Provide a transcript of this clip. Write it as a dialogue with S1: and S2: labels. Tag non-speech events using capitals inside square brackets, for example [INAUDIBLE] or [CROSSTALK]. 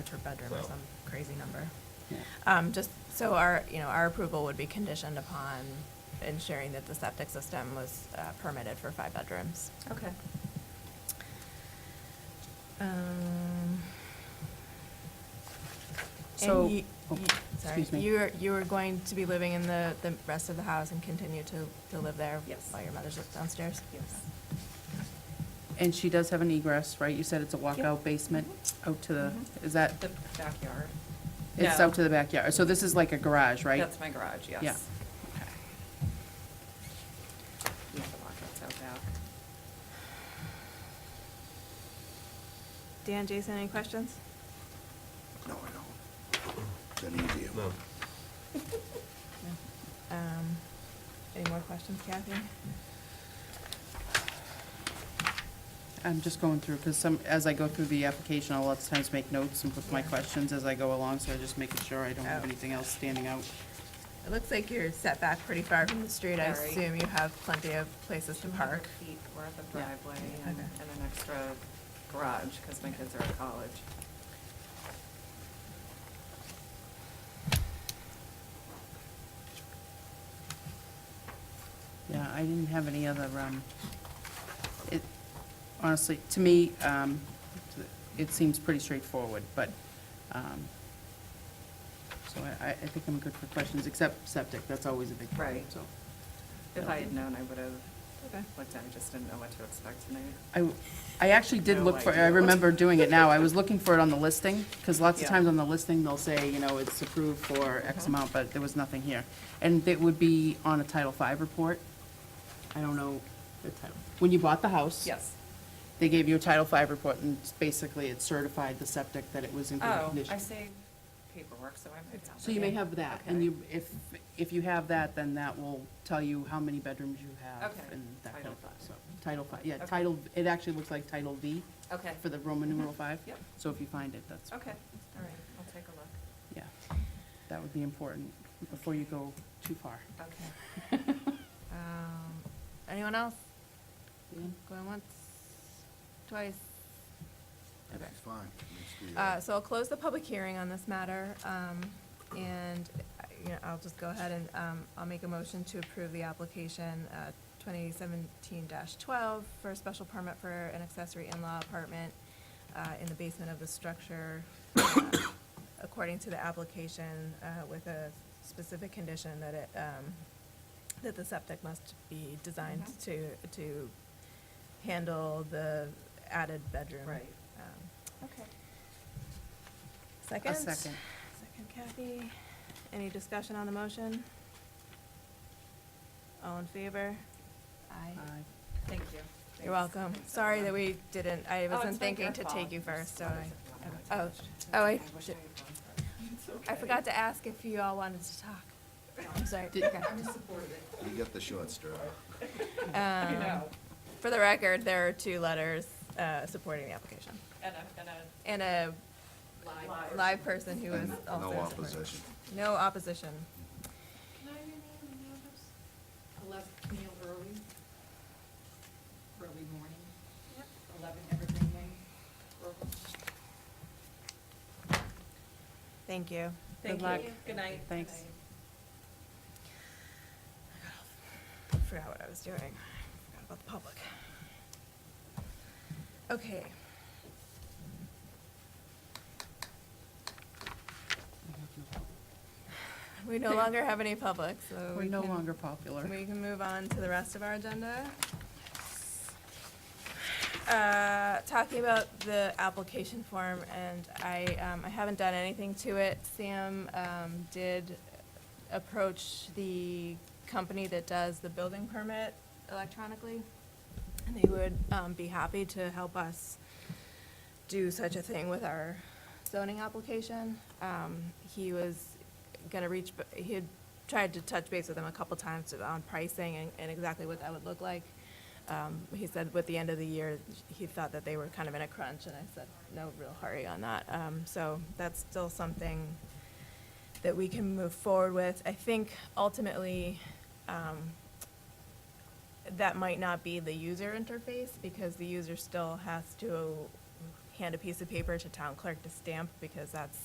S1: per bedroom or
S2: So-
S1: some crazy number.
S3: Yeah.
S1: Um, just, so our, you know, our approval would be conditioned upon ensuring that the septic system was uh, permitted for five bedrooms.
S4: Okay.
S1: Um,
S3: So-
S1: And you,
S3: oh,
S1: you- sorry,
S3: excuse me.
S1: you are, you are going to be living in the, the rest of the house and continue to, to live there?
S4: Yes.
S1: While your mother's downstairs?
S4: Yes.
S3: And she does have an egress, right? You said it's a
S4: Yep.
S3: walkout basement out to the,
S4: Mhm.
S3: is that,
S4: The backyard.
S3: it's
S4: No,
S3: out to the backyard? So this is like a garage, right?
S4: That's my garage, yes.
S3: Yeah.
S4: Okay. Yeah, the walkout's out back.
S1: Dan, Jason, any questions?
S5: No, I don't. It's an easy one.
S2: No.
S1: Um, any more questions, Kathy?
S3: I'm just going through, because some, as I go through the application, I'll lots of times make notes and put my
S1: Yeah.
S3: questions as I go along, so I'm just making sure I don't have
S1: Oh.
S3: anything else standing out.
S1: It looks like you're set back pretty far from the street. I
S4: Very.
S1: assume you have plenty of places to
S4: 200
S1: park.
S4: Feet worth of
S3: Yeah.
S4: driveway and,
S1: Okay.
S4: and an extra garage, because my kids are at college.
S3: Yeah, I didn't have any other, um, it, honestly, to me, um, it seems pretty straightforward, but, um, so I, I I think I'm good for questions, except septic, that's always a big problem,
S4: Right.
S3: so.
S4: If I had known, I would have
S1: Okay.
S4: looked at it, I just didn't know what to expect tonight.
S3: I, I actually did
S4: No
S3: look for, I
S4: idea.
S3: remember doing it now, I was looking for it on the listing, because lots of
S4: Yeah. Mm-hmm.
S3: times on the listing, they'll say, you know, it's approved for X amount, but there was nothing here. And it would be on a Title V report, I don't know the title, when you bought the house.
S4: Yes.
S3: They gave you a Title V report, and it's basically it certified the septic that it was in good
S4: Oh,
S3: condition.
S4: I say paperwork, so I might have.
S3: So you may
S4: it.
S3: have that, and
S4: Okay.
S3: you, if, if you have that, then that will tell you how many bedrooms you have.
S4: Okay.
S3: And that kind of
S4: Title
S3: thing, so, Title V, yeah,
S4: Okay.
S3: Title, it actually looks like Title V
S4: Okay,
S3: for the Roman numeral five.
S4: Mhm. Yep.
S3: So if you find it, that's,
S4: okay, all right, I'll take a look.
S3: yeah, that would be important before you go too far.
S4: Okay.
S1: Um, anyone else? Going once, twice? Okay.
S5: It's fine. It's the,
S1: Uh,
S5: uh,
S1: so I'll close the public hearing on this matter, um, and, uh, you know, I'll just go ahead and, um, I'll make a motion to approve the application, uh, twenty seventeen twelve for a special permit for an accessory in-law apartment, uh, in the basement of the structure, uh, according to the application, uh, with a specific condition that it, um, that the septic must be designed
S4: Mhm.
S1: to, to handle the added bedroom.
S4: Right.
S1: Um,
S4: Okay.
S1: Second?
S3: second.
S1: Second Kathy. Any discussion on the motion? All in favor? Aye.
S3: Aye.
S4: Thank you.
S1: You're welcome. Sorry that we didn't, I wasn't thinking to take you first, so I. Oh, oh, I, I forgot to ask if you all wanted to talk. I'm [LAUGHS] sorry. Okay.
S5: You get the short straw.
S1: Um, For the record, there are two letters uh, supporting the application.
S4: And a, and a
S1: And a
S4: live.
S1: live person who was
S5: And
S1: also
S5: No
S1: supporting.
S5: opposition.
S1: No opposition.
S6: Can I rename the notice? Eleven, Neil Early, early morning. Yep. Eleven Evergreen Lane, Brooklyn.
S1: Thank you.
S4: Thank
S3: luck.
S4: you. Good night.
S3: Thanks.
S4: Good night.
S1: Forgot what I was doing. Forgot about the public. Okay. We no longer have any public, so.
S3: We're
S1: we
S3: no
S1: can-
S3: longer popular.
S1: We can move on to the rest of our agenda. Uh, Talking about the application form, and I, um, I haven't done anything to it. Sam um, did approach the company that does the building permit electronically, and they would um, be happy to help us do such a thing with our zoning application. Um, He was gonna reach, b- he had tried to touch base with him a couple times on pricing and, and exactly what that would look like. Um, he said with the end of the year, he thought that they were kind of in a crunch, and I said, no real hurry on that. Um, so that's still something that we can move forward with. I think ultimately, um, that might not be the user interface, because the user still has to hand a piece of paper to town clerk to stamp because that's